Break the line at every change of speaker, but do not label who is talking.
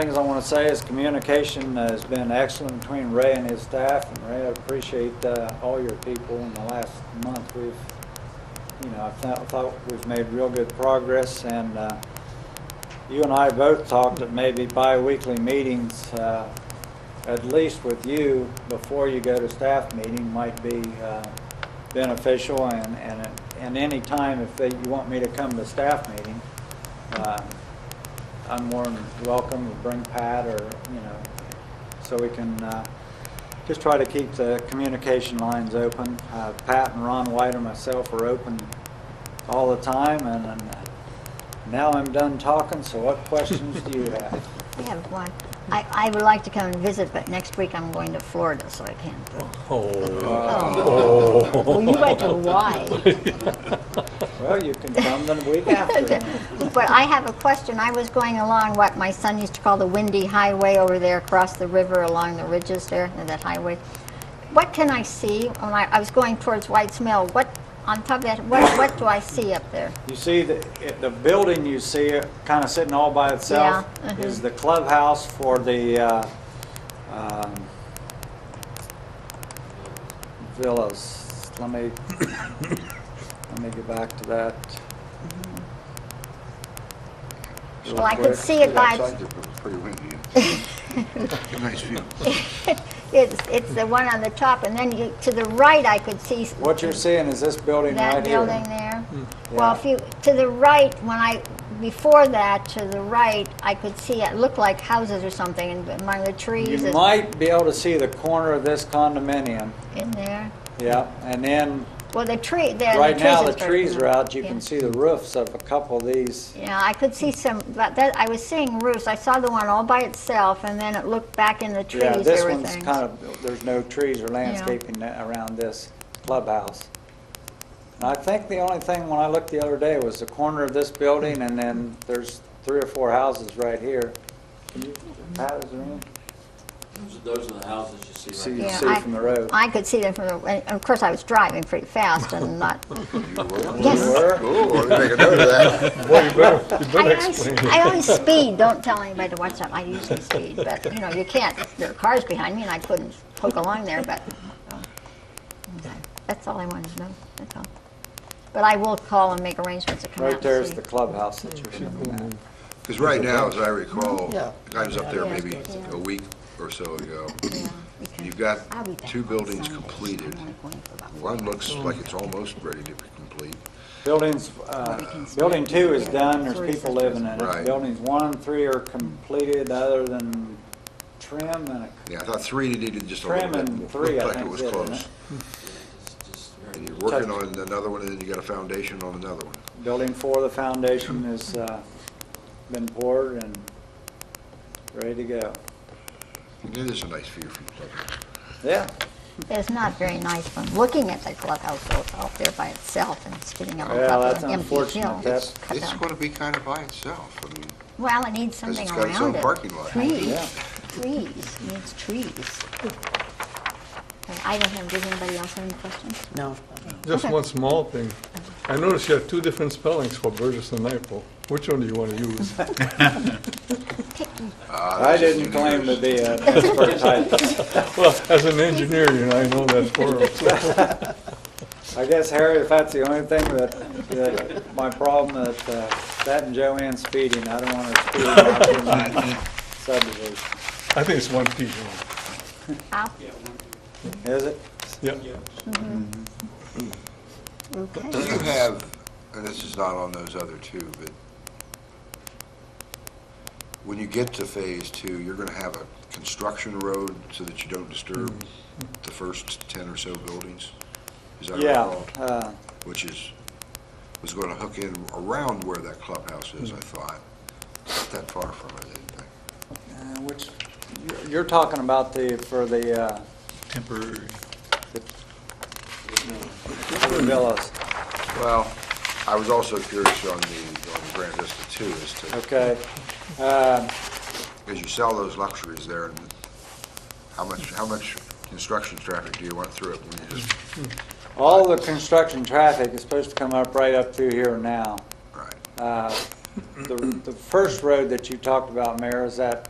Things I want to say is communication has been excellent between Ray and his staff, and Ray, I appreciate uh, all your people in the last month. We've, you know, I thought- thought we've made real good progress, and uh, you and I both talked at maybe bi-weekly meetings, uh, at least with you, before you go to staff meeting might be uh, beneficial, and, and, and any time if they- you want me to come to staff meeting, uh, I'm more than welcome to bring Pat or, you know, so we can uh, just try to keep the communication lines open. Uh, Pat and Ron White and myself are open all the time, and and now I'm done talking, so what questions do you have?
I have one. I, I would like to come and visit, but next week I'm going to Florida, so I can't. go.
Oh.
Well, you went to Hawaii.
Well, you can come the week after.
But I have a question. I was going along what my son used to call the windy highway over there across the river along the ridges there, and that highway. What can I see? When I, I was going towards White's Mill, what, on top of that, what, what do I see up there?
You see, the, it- the building you see, kind of sitting all by itself,
Yeah, mhm.
is the clubhouse for the, uh, um, villas. Let me, let me get back to that. real
Well, I could
quick.
see it by,
Outside, it was pretty windy. A Nice view.
it's, it's the one on the top, and then you, to the right, I could see. s-
What you're seeing is this building right
That
here.
building there? Well,
Yeah.
if you, to the right, when I, before that, to the right, I could see it looked like houses or something and among the trees
You
and
might be able to see the corner of this condominium,
in there.
yeah, and then,
Well, the tree, there, the
right
trees.
now, the
is very-
trees are out, you can
yeah.
see the roofs of a couple of these.
Yeah, I could see some, but that, I was seeing roofs. I saw the one all by itself and then it looked back in the trees,
Yeah,
there
this
were
one's
things.
kind of, there's no trees or landscaping tha- around this clubhouse. And I think the only thing, when I looked the other day, was the corner of this building, and then there's three or four houses right here. Can you, Pat, is there any?
Those are the houses you see right
See,
now.
you
Yeah,
see
I-
from the road.
I could see them from, the and of course, I was driving pretty fast and not Yes.
You were?
Oh, I didn't make a note of that.
Well, you better, you better
I always,
explain it.
I always speed, don't tell anybody to watch that, I usually speed, but, you know, you can't, there are cars behind me and I couldn't poke along there, but, uh, okay. that's all I wanted to know, that's all. But I will call and make arrangements to come out
Right
and
there's
see.
the clubhouse that you're looking at.
Mm-hmm. Because right now, as I recall,
Yeah.
I was up there
Yeah.
maybe
Yeah.
a week or so ago.
Yeah, okay.
You've
I'll be
got
back
two
on
buildings
Sunday.
completed.
I'm only going for about four
One
hours.
looks
Mm.
like it's almost ready to be complete.
Buildings, uh, building two is done, there's people living in it.
Right.
Buildings one and three are completed, other than trim and a
Yeah, I thought three needed just a little
Trim
bit.
and
more.
three, I
Looked like
think,
it was
did, didn't
close.
it?
It's just very-
And you're working on another one, and then you got a foundation on another one.
Building four, the foundation has uh, been poured and ready to go.
It is a nice view from the clubhouse.
Yeah,
It's not very nice from looking at the clubhouse, though, it's out there by itself and it's getting on
Yeah,
top
that's
of an empty
unfortunate.
hill.
That's-
It's,
Cut
it's
down.
going to be kind of by itself. I mean,
Well, it needs something
it's
around it.
got its own parking lot.
Yeah.
Trees, trees, It needs trees. Okay, I don't have, does anybody else have any questions?
No.
Just one small thing. I noticed you have two different spellings for Burgess and Nyepel. Which one do you want to use?
ah,
I
this is
didn't claim to
yours.
be an expert type.
Well, as an engineer, you know, I know that for a
I guess, Harry, if that's the only thing that, that my problem that, uh, that and Joanne speeding, I don't want to speed out in my subdivision.
I think it's one P.
Al?
Is it?
Yeah.
Do
Okay.
you have, and this is not on those other two, but when you get to phase two, you're gonna have a construction road so that you don't disturb the first ten or so buildings? Is that
Yeah,
recalled?
uh,
Which is, was gonna hook in around where that clubhouse is, I thought. Not that far from it, I didn't think.
uh, which, you're- you're talking about the, for the, uh,
temporary.
the villas.
Well, I was also curious on the, on Grand Vista too, as to
Okay. Uh,
Because you sell those luxuries there, and how much, how much construction traffic do you want through it? when you just-
All the construction traffic is supposed to come up right up through here now.
Right,
Uh, The the first road that you talked about, Mayor, is that